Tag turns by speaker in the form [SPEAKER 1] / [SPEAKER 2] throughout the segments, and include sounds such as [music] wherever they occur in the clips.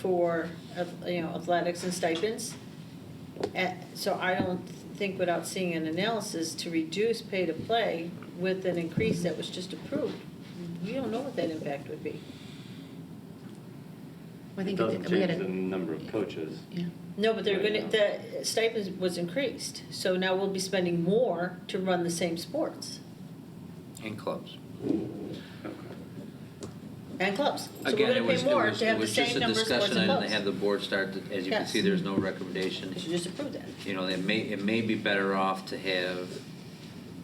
[SPEAKER 1] for, ath- you know, athletics and stipends. Eh, So I don't think without seeing an analysis to reduce pay to play with an increase that was just approved, we don't know what that impact would be.
[SPEAKER 2] I
[SPEAKER 3] It
[SPEAKER 2] think
[SPEAKER 3] doesn't
[SPEAKER 2] we gotta-
[SPEAKER 3] change the number of coaches.
[SPEAKER 2] Yeah,
[SPEAKER 1] No, but they're gonna,
[SPEAKER 3] Right
[SPEAKER 1] the stipend was increased, so now we'll be spending more to run the same sports
[SPEAKER 4] And clubs.
[SPEAKER 1] and clubs. So we're
[SPEAKER 4] Again, it
[SPEAKER 1] gonna
[SPEAKER 4] was,
[SPEAKER 1] pay
[SPEAKER 4] it
[SPEAKER 1] more
[SPEAKER 4] was,
[SPEAKER 1] to
[SPEAKER 4] it
[SPEAKER 1] have the
[SPEAKER 4] was just
[SPEAKER 1] same
[SPEAKER 4] a
[SPEAKER 1] number of sports
[SPEAKER 4] discussion
[SPEAKER 1] and
[SPEAKER 4] item to
[SPEAKER 1] clubs.
[SPEAKER 4] have the board start, to- as you can
[SPEAKER 1] Yes.
[SPEAKER 4] see, there's no recommendation.
[SPEAKER 1] They should just approve that.
[SPEAKER 4] You know, it may, it may be better off to have,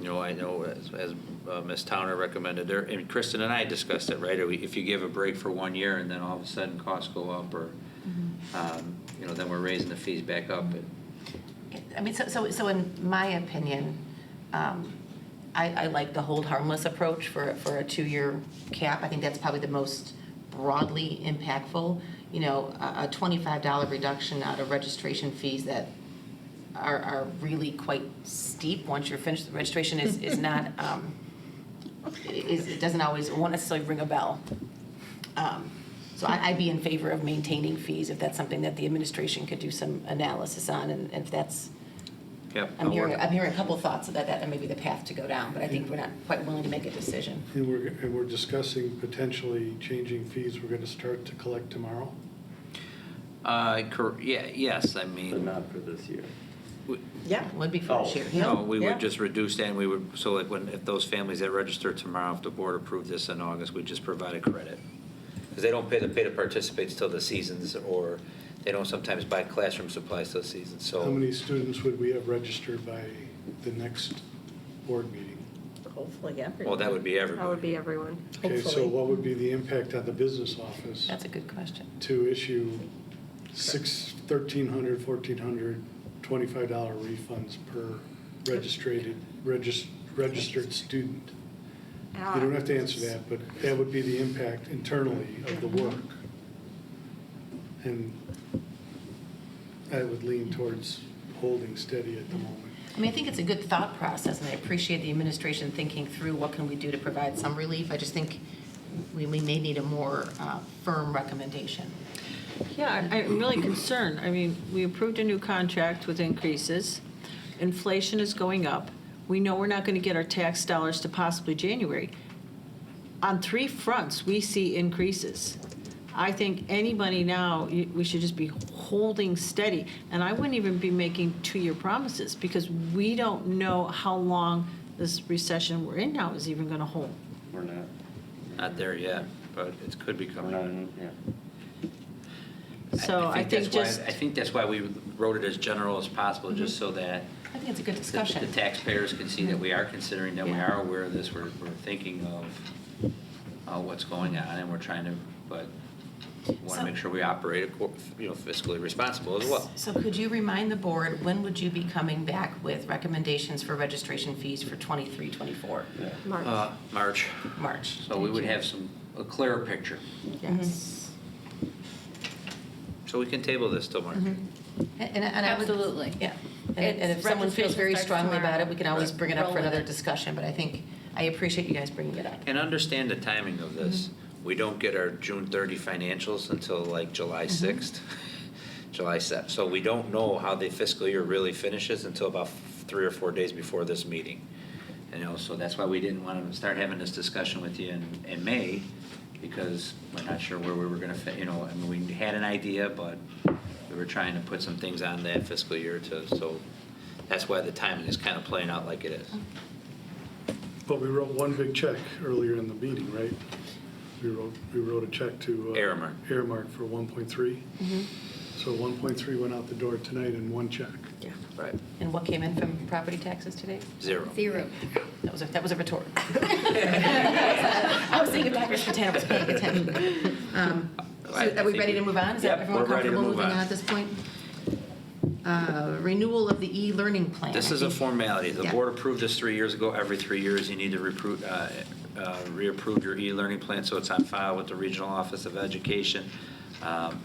[SPEAKER 4] you know, I know as, as uh, Ms. Towner recommended, there, and Kristen and I discussed it, right? If you give a break for one year and then all of a sudden costs go up or,
[SPEAKER 1] Mm-hmm.
[SPEAKER 4] um, you know, then we're raising the fees back up.
[SPEAKER 2] I mean, so, so, so in my opinion, um, I, I like the hold harmless approach for, for a two-year cap. I think that's probably the most broadly impactful. You know, a, a twenty-five dollar reduction out of registration fees that are, are really quite steep once you're finished. The Registration is, is not, um, is, it doesn't always, it won't necessarily ring a bell. Um, So I- I'd be in favor of maintaining fees if that's something that the administration could do some analysis on, and if that's,
[SPEAKER 4] Yep.
[SPEAKER 2] I'm hearing, I'm hearing a couple thoughts of that, that may be the path to go down, but I think we're not quite willing to make a decision.
[SPEAKER 5] And we're, and we're discussing potentially changing fees we're gonna start to collect tomorrow.
[SPEAKER 4] Uh, cor, yeah, yes, I
[SPEAKER 3] But
[SPEAKER 4] mean,
[SPEAKER 3] not for this year.
[SPEAKER 4] we-
[SPEAKER 2] Yeah. Would be for this
[SPEAKER 3] Oh,
[SPEAKER 2] year.
[SPEAKER 4] no, we
[SPEAKER 1] Yeah.
[SPEAKER 4] would just reduce that and we would, so like when, if those families that register tomorrow, if the board approved this in August, we just provide a credit. Because they don't pay the pay to participate till the seasons or they don't sometimes buy classroom supplies till the season, so.
[SPEAKER 5] How many students would we have registered by the next board meeting?
[SPEAKER 1] Hopefully, yeah.
[SPEAKER 4] Well, that would be
[SPEAKER 6] That would
[SPEAKER 4] everybody.
[SPEAKER 6] be everyone.
[SPEAKER 5] Okay, so
[SPEAKER 1] Hopefully.
[SPEAKER 5] what would be the impact on the business office
[SPEAKER 2] That's a good question.
[SPEAKER 5] to issue six, thirteen hundred, fourteen hundred, twenty-five dollar refunds per registered, regis- registered student? You don't have to answer that, but that would be the impact internally of the work. And I would lean towards holding steady at the moment.
[SPEAKER 2] I mean, I think it's a good thought process, and I appreciate the administration thinking through what can we do to provide some relief. I just think we, we may need a more uh, firm recommendation.
[SPEAKER 1] Yeah, I- I'm really concerned. I mean, we approved a new contract with increases. Inflation is going up. We know we're not going to get our tax dollars to possibly January. On three fronts, we see increases. I think any money now, you- we should just be holding steady. And I wouldn't even be making two-year promises because we don't know how long this recession we're in now is even going to hold.
[SPEAKER 3] We're not,
[SPEAKER 4] Not there yet, but it could be
[SPEAKER 3] we're
[SPEAKER 4] coming.
[SPEAKER 3] not, in- Mm-hmm, yeah.
[SPEAKER 1] So I think
[SPEAKER 4] that's why-
[SPEAKER 1] just.
[SPEAKER 4] I think that's why we wrote it as general as possible, just so that
[SPEAKER 2] I think it's a good
[SPEAKER 4] the-
[SPEAKER 2] discussion.
[SPEAKER 4] the taxpayers can see that we are considering, that we
[SPEAKER 2] Yeah.
[SPEAKER 4] are aware of this, we're, we're thinking of uh, what's going on, and we're trying to, but want
[SPEAKER 2] So-
[SPEAKER 4] to make sure we operate, acco- you know, fiscally responsible as well.
[SPEAKER 2] So could you remind the board, when would you be coming back with recommendations for registration fees for 23, 24?
[SPEAKER 3] yeah.
[SPEAKER 6] March.
[SPEAKER 4] Uh, March,
[SPEAKER 2] March?
[SPEAKER 4] so we would have some, a clearer picture.
[SPEAKER 2] Yes.
[SPEAKER 4] So we can table this till March.
[SPEAKER 2] Mm-hmm. And, and I would.
[SPEAKER 7] Mm-hmm. Absolutely.
[SPEAKER 2] Yeah. And and if
[SPEAKER 7] It's-
[SPEAKER 2] someone feels very
[SPEAKER 7] registration starts
[SPEAKER 2] strongly about it,
[SPEAKER 7] tomorrow.
[SPEAKER 2] we can always
[SPEAKER 4] Right.
[SPEAKER 2] bring it up
[SPEAKER 7] Roll
[SPEAKER 2] for
[SPEAKER 7] with
[SPEAKER 2] another
[SPEAKER 7] it.
[SPEAKER 2] discussion, but I think, I appreciate you guys bringing it up.
[SPEAKER 4] And understand the timing of this. We don't get our June 30 financials until like July 6th, [laughs] July 7th. So we don't know how the fiscal year really finishes until about f- three or four days before this meeting. You know, so that's why we didn't want to start having this discussion with you in, in May, because we're not sure where we were going to, you know, I mean, we had an idea, but we were trying to put some things on that fiscal year to, so that's why the timing is kind of playing out like it is.
[SPEAKER 5] But we wrote one big check earlier in the meeting, right? We wrote, we wrote a check to. uh,
[SPEAKER 4] Aramark.
[SPEAKER 5] Aramark for 1.3.
[SPEAKER 2] Mm-hmm.
[SPEAKER 7] Mm-hmm.
[SPEAKER 5] So 1.3 went out the door tonight in one check.
[SPEAKER 4] Right.
[SPEAKER 2] And what came in from property taxes today?
[SPEAKER 4] Zero.
[SPEAKER 7] Zero.
[SPEAKER 2] That was a, that was a
[SPEAKER 7] [laughs]
[SPEAKER 2] retort. [laughs] I was thinking backwards, Montana was paying
[SPEAKER 7] [laughs]
[SPEAKER 2] attention. Um, so
[SPEAKER 4] I- I
[SPEAKER 2] Are we
[SPEAKER 4] think
[SPEAKER 2] ready to
[SPEAKER 4] we-
[SPEAKER 2] move on? Is that
[SPEAKER 4] Yep,
[SPEAKER 2] everyone
[SPEAKER 4] we're ready to
[SPEAKER 2] comfortable
[SPEAKER 4] move
[SPEAKER 2] moving on
[SPEAKER 4] on.
[SPEAKER 2] at this point? Uh, Renewal of the e-learning plan.
[SPEAKER 4] This
[SPEAKER 2] I
[SPEAKER 4] is a
[SPEAKER 2] think-
[SPEAKER 4] formality. The
[SPEAKER 2] Yeah.
[SPEAKER 4] board approved this three years ago. Every three years, you need to repro- uh, uh, reapprove your e-learning plan, so it's on file with the Regional Office of Education. Um,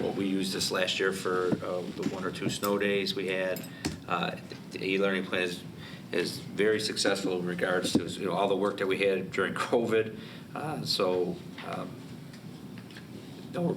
[SPEAKER 4] Well, we used this last year for uh, the one or two snow days we had. Uh, The e-learning plan is, is very successful in regards to, you know, all the work [laughs] that we had during COVID. Uh, So, um, no,